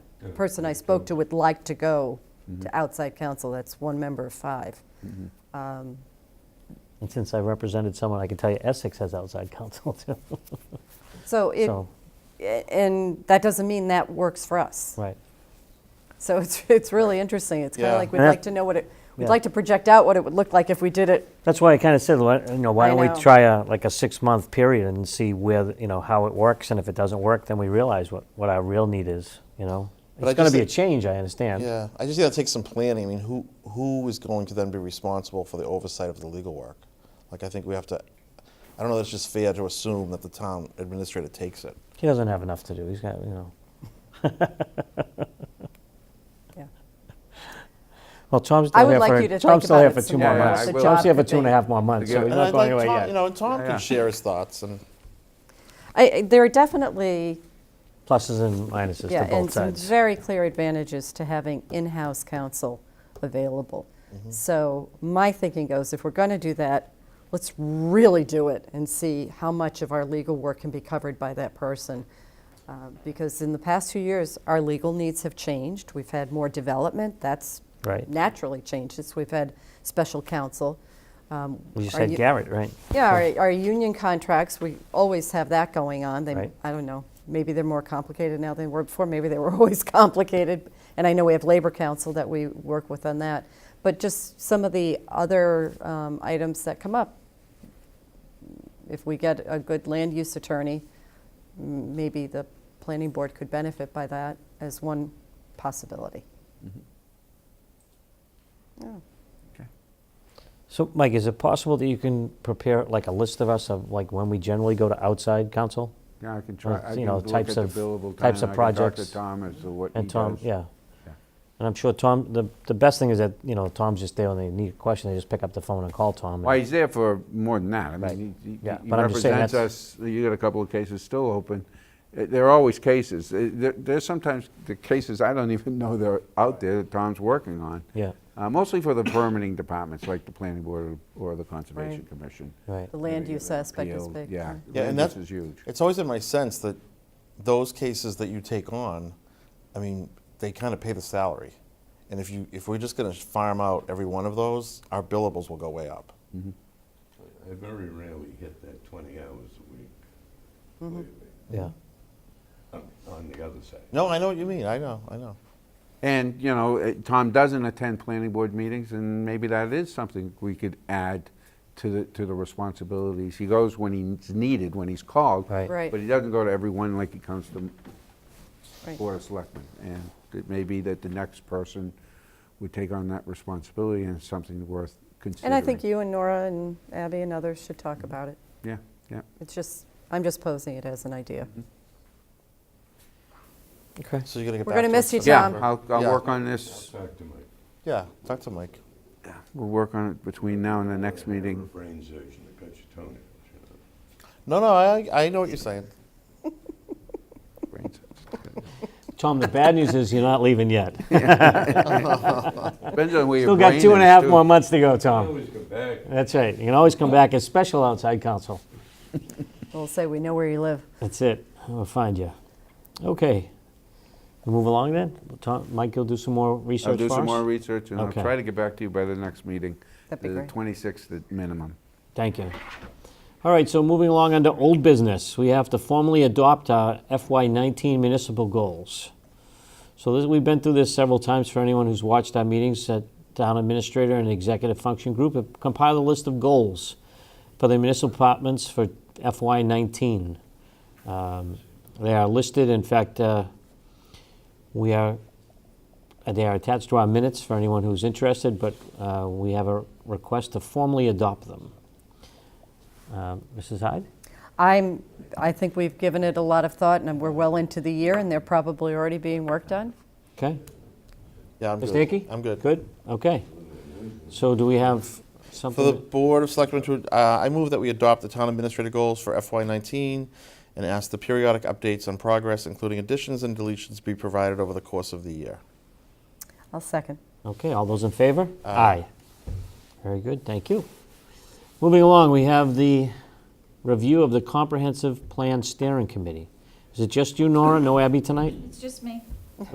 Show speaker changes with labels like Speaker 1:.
Speaker 1: person I spoke to would like to go
Speaker 2: Mm-hmm.
Speaker 1: to outside counsel, that's one member of five. Um,
Speaker 2: And since I represented someone, I can tell you Essex has outside counsel too.
Speaker 1: So it,
Speaker 2: So,
Speaker 1: a- and that doesn't mean that works for us.
Speaker 2: right.
Speaker 1: So it's, it's really interesting. It's kind
Speaker 3: Yeah.
Speaker 1: of like, we'd
Speaker 2: Yeah.
Speaker 1: like to know what it, we'd
Speaker 2: Yeah.
Speaker 1: like to project out what it would look like if we did it.
Speaker 2: That's why I kind of said, why- you know, why
Speaker 1: I
Speaker 2: don't we
Speaker 1: know.
Speaker 2: try a, like a six-month period and see where, the- you know, how it works, and if it doesn't work, then we realize what, what our real need is, you know?
Speaker 3: But I
Speaker 2: It's gonna
Speaker 3: just
Speaker 2: be a
Speaker 3: think-
Speaker 2: change, I understand.
Speaker 3: Yeah, I just think that takes some planning. I mean, who who is going to then be responsible for the oversight of the legal work? Like, I think we have to. I don't know. That's just fair to assume that the town administrator takes it.
Speaker 2: He doesn't have enough to do, he's got, you know.
Speaker 1: Yeah.
Speaker 2: Well, Tom's
Speaker 1: I
Speaker 2: still
Speaker 1: would
Speaker 2: here
Speaker 1: like
Speaker 2: for,
Speaker 1: you to
Speaker 2: Tom's
Speaker 1: think
Speaker 2: still
Speaker 1: about
Speaker 2: here
Speaker 1: it
Speaker 2: for
Speaker 1: some
Speaker 2: two more
Speaker 4: more,
Speaker 2: months.
Speaker 4: what the
Speaker 2: Tom's
Speaker 1: job
Speaker 2: here for
Speaker 1: could
Speaker 2: two and a
Speaker 1: be.
Speaker 2: half more months,
Speaker 4: To
Speaker 2: so
Speaker 4: give-
Speaker 2: he's
Speaker 3: And
Speaker 2: not
Speaker 3: I'd
Speaker 2: going
Speaker 3: like
Speaker 2: away
Speaker 3: Tom,
Speaker 2: yet.
Speaker 3: you know, and Tom
Speaker 4: Yeah.
Speaker 3: can share his thoughts. And
Speaker 1: I, I- there are definitely,
Speaker 2: Pluses and minuses
Speaker 1: yeah,
Speaker 2: to
Speaker 1: and
Speaker 2: both
Speaker 1: some
Speaker 2: sides.
Speaker 1: very clear advantages to having in-house counsel available.
Speaker 2: Mm-hmm.
Speaker 1: So my thinking goes, if we're going to do that, let's really do it and see how much of our legal work can be covered by that person. Uh, Because in the past few years, our legal needs have changed. We've had more development. That's
Speaker 2: Right.
Speaker 1: naturally changed since we've had special counsel. Um,
Speaker 2: You
Speaker 1: our
Speaker 2: said
Speaker 1: u-
Speaker 2: Garrett, right?
Speaker 1: Yeah, our, our union contracts, we always have that going on. They,
Speaker 2: Right.
Speaker 1: I don't know, maybe they're more complicated now than they were before. Maybe they were always complicated. And I know we have labor council that we work with on that. But just some of the other um, items that come up. If we get a good land use attorney, m- maybe the planning board could benefit by that as one possibility.
Speaker 2: So, Mike, is it possible that you can prepare like a list of us of like when we generally go to outside counsel?
Speaker 4: Yeah, I can try,
Speaker 2: Well,
Speaker 4: I
Speaker 2: you
Speaker 4: can
Speaker 2: know,
Speaker 4: look at
Speaker 2: types
Speaker 4: the
Speaker 2: of-
Speaker 4: billable time,
Speaker 2: types
Speaker 4: and
Speaker 2: of
Speaker 4: I can talk
Speaker 2: projects
Speaker 4: to Tom as to what he
Speaker 2: And Tom,
Speaker 4: does.
Speaker 2: yeah.
Speaker 4: Yeah.
Speaker 2: And I'm sure Tom, the, the best thing is that, you know, Tom's just there when they need a question, they just pick up the phone and call Tom.
Speaker 4: Well,
Speaker 2: and-
Speaker 4: he's there for more than that. I
Speaker 2: Right.
Speaker 4: mean, he- he
Speaker 2: Yeah,
Speaker 4: he
Speaker 2: but I'm just saying
Speaker 4: represents us, you got a couple of cases still open. Uh, There are always cases. Uh, there- There's sometimes the cases I don't even know they're out there that Tom's working on.
Speaker 2: Yeah,
Speaker 4: Uh, Mostly for the permitting departments, like the planning board or the conservation commission.
Speaker 2: right.
Speaker 1: The land use aspect is
Speaker 4: PO,
Speaker 1: big.
Speaker 4: Yeah,
Speaker 3: yeah, and
Speaker 4: this
Speaker 3: that's
Speaker 4: is huge.
Speaker 3: It's always in my sense that those cases that you take on, I mean, they kind of pay the salary. And if you if we're just going to farm out every one of those, our billables will go way up.
Speaker 5: I very rarely hit that twenty hours a week. believe me.
Speaker 2: Yeah.
Speaker 5: On- On the other side.
Speaker 3: No, I know what you mean. I know. I know.
Speaker 4: And, you know, eh, Tom doesn't attend planning board meetings, and maybe that is something we could add to the, to the responsibilities. He goes when he's needed, when he's called.
Speaker 2: Right.
Speaker 1: Right.
Speaker 4: But he doesn't go to everyone like he comes to
Speaker 1: Right.
Speaker 4: Board of Selectmen. And it may be that the next person would take on that responsibility and it's something worth considering.
Speaker 1: And I think you and Nora and Abby and others should talk about it.
Speaker 4: Yeah, yeah.
Speaker 1: It's just, I'm just posing it as an idea.
Speaker 2: Okay.
Speaker 3: So you're going to get
Speaker 1: We're
Speaker 3: back
Speaker 1: gonna
Speaker 3: to
Speaker 1: miss
Speaker 3: us
Speaker 1: you,
Speaker 3: in
Speaker 4: Yeah,
Speaker 1: Tom.
Speaker 3: September.
Speaker 4: I'll, I'll
Speaker 3: Yeah.
Speaker 4: work on
Speaker 5: I'll
Speaker 4: this,
Speaker 5: talk to Mike.
Speaker 3: Yeah, talk to Mike.
Speaker 4: we'll work on it between now and the next meeting.
Speaker 5: Brain surgeon that cut your toenails, you know.
Speaker 3: No, no, I, I know what you're saying.
Speaker 2: Tom, the bad news is you're not leaving yet.
Speaker 4: Depends on where your
Speaker 2: Still
Speaker 4: brain
Speaker 2: got two and a
Speaker 4: is,
Speaker 2: half
Speaker 4: too.
Speaker 2: more months to go, Tom.
Speaker 5: Always go back.
Speaker 2: That's right. You can always come back as special outside counsel.
Speaker 1: We'll say we know where you live.
Speaker 2: That's it. We'll find you. Okay. We Move along then. Tom, Mike, you'll do some more
Speaker 4: I'll
Speaker 2: research
Speaker 4: do
Speaker 2: for
Speaker 4: some
Speaker 2: us?
Speaker 4: more research, and I'll
Speaker 2: Okay.
Speaker 4: try to get back to you by the next meeting.
Speaker 1: That'd be
Speaker 4: the
Speaker 1: great.
Speaker 4: 26th at minimum.
Speaker 2: Thank you. All right, so moving along under old business, we have to formally adopt our FY19 municipal goals. So this, we've been through this several times for anyone who's watched our meetings at town administrator and executive function group, have compiled a list of goals for the municipal departments for FY19. Um, They are listed, in fact, uh, we are uh, They are attached to our minutes for anyone who's interested, but uh, we have a request to formally adopt them. Um, Mrs. Hyde?
Speaker 1: I'm, I think we've given it a lot of thought, and we're well into the year, and they're probably already being worked on.
Speaker 2: Okay.
Speaker 3: Yeah, I'm
Speaker 2: Ms.
Speaker 3: good.
Speaker 2: Dickey?
Speaker 3: I'm good.
Speaker 2: Good? Okay. So do we have
Speaker 3: For the
Speaker 2: something?
Speaker 3: Board of Selectmen to, uh, I move that we adopt the town administrator goals for FY19 and ask the periodic updates on progress, including additions and deletions, be provided over the course of the year.
Speaker 1: I'll second.
Speaker 2: Okay, all those in favor? Aye. Very good, thank you. Moving along, we have the review of the Comprehensive Plan Steering Committee. Is it just you, Nora? No Abby tonight?
Speaker 6: It's just me.